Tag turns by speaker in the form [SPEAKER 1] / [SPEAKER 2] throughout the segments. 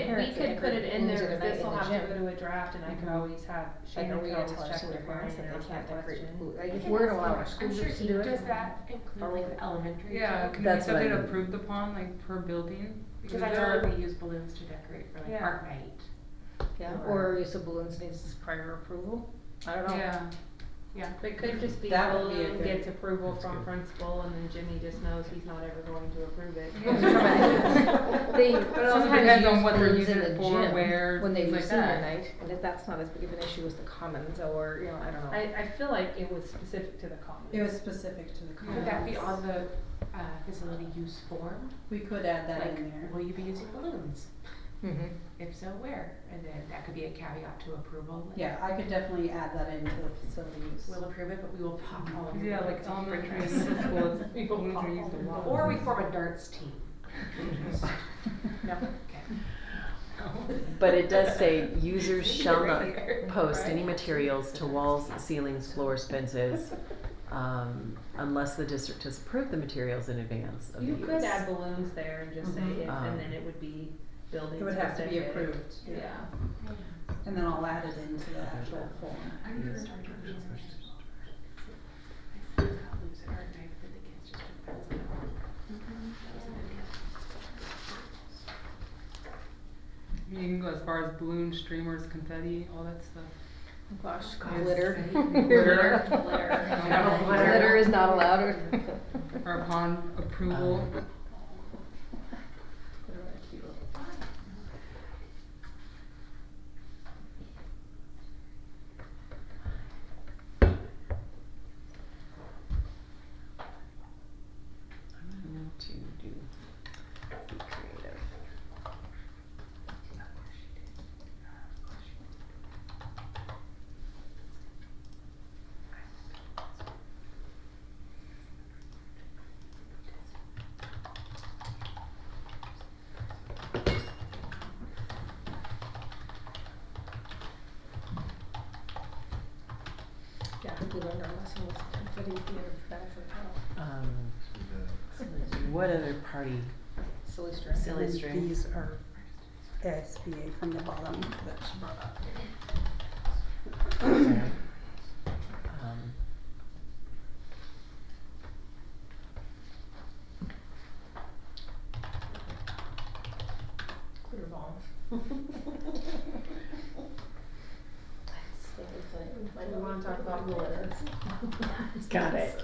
[SPEAKER 1] we
[SPEAKER 2] parents that
[SPEAKER 1] could put
[SPEAKER 2] every-
[SPEAKER 1] it in
[SPEAKER 2] use it
[SPEAKER 1] there,
[SPEAKER 2] every night
[SPEAKER 1] this
[SPEAKER 2] in
[SPEAKER 1] will
[SPEAKER 2] the
[SPEAKER 1] have to
[SPEAKER 2] gym.
[SPEAKER 1] go to a draft and I could
[SPEAKER 2] Mhm.
[SPEAKER 1] always have,
[SPEAKER 2] Like a
[SPEAKER 1] Shannon could
[SPEAKER 2] read
[SPEAKER 1] always
[SPEAKER 2] to us
[SPEAKER 1] check
[SPEAKER 2] to
[SPEAKER 1] with
[SPEAKER 2] the
[SPEAKER 1] her
[SPEAKER 2] parents
[SPEAKER 1] and
[SPEAKER 2] that they
[SPEAKER 1] ask
[SPEAKER 2] can't
[SPEAKER 1] that
[SPEAKER 2] decorate
[SPEAKER 1] question.
[SPEAKER 2] food, like
[SPEAKER 3] We
[SPEAKER 2] if
[SPEAKER 3] can
[SPEAKER 2] we're
[SPEAKER 3] ask
[SPEAKER 2] gonna allow
[SPEAKER 3] them.
[SPEAKER 2] our school
[SPEAKER 3] I'm sure
[SPEAKER 2] groups to
[SPEAKER 3] he-
[SPEAKER 2] do it.
[SPEAKER 3] Does
[SPEAKER 2] then-
[SPEAKER 3] that include like the elementary?
[SPEAKER 4] Yeah,
[SPEAKER 3] too?
[SPEAKER 4] can we
[SPEAKER 2] That's
[SPEAKER 4] get
[SPEAKER 2] what I
[SPEAKER 4] that
[SPEAKER 2] mean.
[SPEAKER 4] approved upon, like per building?
[SPEAKER 3] Because I know that we use balloons to decorate for like
[SPEAKER 4] Yeah.
[SPEAKER 3] art night.
[SPEAKER 2] Yeah,
[SPEAKER 3] Or-
[SPEAKER 2] or use of balloons needs prior approval, I don't know.
[SPEAKER 4] Yeah,
[SPEAKER 3] Yeah.
[SPEAKER 1] It could just be
[SPEAKER 2] Mm-hmm. That would be a
[SPEAKER 1] Balloon
[SPEAKER 2] good-
[SPEAKER 1] gets approval
[SPEAKER 5] That's
[SPEAKER 1] from
[SPEAKER 5] good.
[SPEAKER 1] principal and then Jimmy just knows he's not ever going to approve it. uh,
[SPEAKER 4] Yeah.
[SPEAKER 2] They
[SPEAKER 4] But it also
[SPEAKER 2] sometimes
[SPEAKER 4] depends on
[SPEAKER 2] use
[SPEAKER 4] what they're
[SPEAKER 2] balloons
[SPEAKER 4] using
[SPEAKER 2] in the
[SPEAKER 4] it for,
[SPEAKER 2] gym
[SPEAKER 4] where,
[SPEAKER 2] When they
[SPEAKER 4] things like
[SPEAKER 2] use senior
[SPEAKER 4] that.
[SPEAKER 2] night, and if that's not as big of an issue as the commons or, you know, I don't know.
[SPEAKER 1] I, I feel like it was specific to the commons.
[SPEAKER 6] It was specific to the
[SPEAKER 3] Could that be
[SPEAKER 6] comments.
[SPEAKER 3] on the uh, facility use form?
[SPEAKER 6] We could add that
[SPEAKER 3] Like,
[SPEAKER 6] in there.
[SPEAKER 3] will you be using balloons?
[SPEAKER 2] Mhm.
[SPEAKER 3] If so, where? And then that could be a caveat to approval. like,
[SPEAKER 6] Yeah, I could definitely add that into the facilities.
[SPEAKER 3] We'll approve it, but we will pop all of your
[SPEAKER 4] Yeah, like
[SPEAKER 3] balloons off your
[SPEAKER 4] elementary and
[SPEAKER 3] dress.
[SPEAKER 4] middle school, it's-
[SPEAKER 1] We will
[SPEAKER 4] balloons
[SPEAKER 1] pop
[SPEAKER 4] are used a
[SPEAKER 1] all
[SPEAKER 4] lot.
[SPEAKER 3] Or we form a darts team. No, okay.
[SPEAKER 7] But it does say users
[SPEAKER 3] See,
[SPEAKER 7] shall
[SPEAKER 3] right
[SPEAKER 7] not
[SPEAKER 3] here.
[SPEAKER 7] post
[SPEAKER 3] Right.
[SPEAKER 7] any materials to walls, ceilings, floors, fences, um, unless the district has approved the materials in advance of the
[SPEAKER 1] You
[SPEAKER 7] use.
[SPEAKER 1] could add balloons there and just say
[SPEAKER 6] Mhm.
[SPEAKER 2] Mm-hmm.
[SPEAKER 1] if,
[SPEAKER 7] Um,
[SPEAKER 1] and then it would be building
[SPEAKER 6] It would have to be
[SPEAKER 1] specific.
[SPEAKER 6] approved.
[SPEAKER 1] Yeah.
[SPEAKER 6] And then I'll add it into the actual form.
[SPEAKER 3] I'm gonna start doing this. I think I'll lose it or maybe the kids just took that one. That was a good guess.
[SPEAKER 4] You can go as far as balloon streamers, confetti, all that stuff.
[SPEAKER 2] Gosh,
[SPEAKER 4] Yes.
[SPEAKER 2] glitter.
[SPEAKER 4] Glitter.
[SPEAKER 2] Glitter.
[SPEAKER 4] No,
[SPEAKER 2] Glitter is not allowed.
[SPEAKER 4] Or upon approval.
[SPEAKER 7] Um, I'm not going to do be creative.
[SPEAKER 2] Yeah, I think we learned our lesson with confetti being bad for health.
[SPEAKER 7] Um, what other party?
[SPEAKER 2] Silly string.
[SPEAKER 7] Silly string.
[SPEAKER 6] These are SBA from the bottom that she brought up.
[SPEAKER 7] sorry, um,
[SPEAKER 2] Glitter bomb.
[SPEAKER 1] We wanna talk about glitter.
[SPEAKER 7] Got it.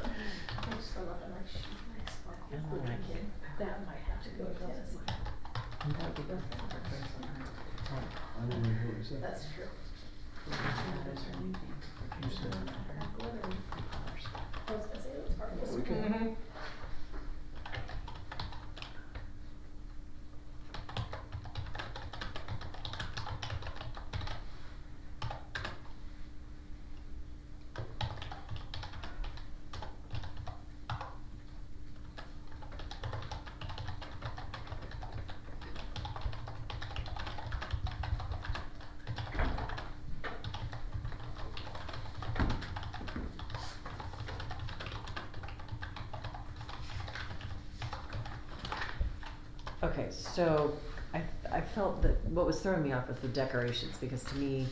[SPEAKER 2] I just love that much.
[SPEAKER 7] All right.
[SPEAKER 2] That might have to go to this.
[SPEAKER 7] That would be perfect.
[SPEAKER 5] I didn't hear what you said.
[SPEAKER 2] That's true.
[SPEAKER 5] You said-
[SPEAKER 2] I was gonna say it was part of this.
[SPEAKER 5] We can-
[SPEAKER 3] Mm-hmm.
[SPEAKER 7] Okay, so I, I felt that what was throwing me off was the decorations because to me,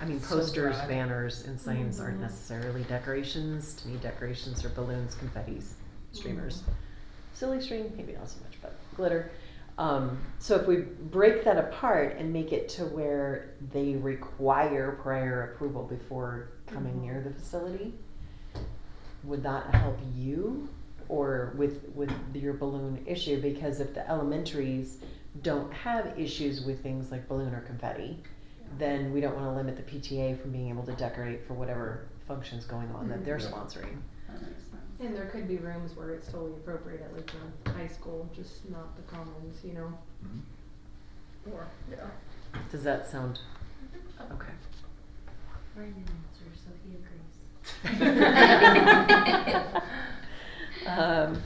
[SPEAKER 7] I mean,
[SPEAKER 4] So
[SPEAKER 7] posters,
[SPEAKER 4] broad.
[SPEAKER 7] banners, and signs aren't
[SPEAKER 4] Mhm.
[SPEAKER 7] necessarily decorations. To me, decorations are balloons, confettis, streamers, silly string, maybe not so much, but glitter. Um, so if we break that apart and make it to where they require prior approval before coming
[SPEAKER 2] Mhm.
[SPEAKER 7] near the facility, would that help you or with with your balloon issue because if the elementaries don't have issues with things like balloon or confetti then we don't want to limit the PTA from being able to decorate for whatever functions going on that they're
[SPEAKER 5] Mhm. Yeah.
[SPEAKER 7] sponsoring.
[SPEAKER 6] That makes sense.
[SPEAKER 1] And there could be rooms where it's totally appropriate at like the high school, just not the commons, you know?
[SPEAKER 5] Mhm.
[SPEAKER 2] Or, yeah.
[SPEAKER 7] Does that sound okay?
[SPEAKER 3] Brandon answers, so he agrees.
[SPEAKER 7] um,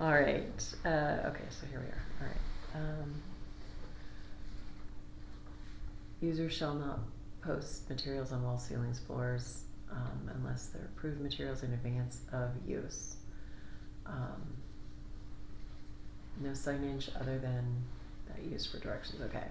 [SPEAKER 7] all right. Uh, okay, so here we are. All right. Um, users shall not post materials on wall ceilings, floors, um, unless they're approved materials in advance of use. Um, no signage other than that used for directions. Okay.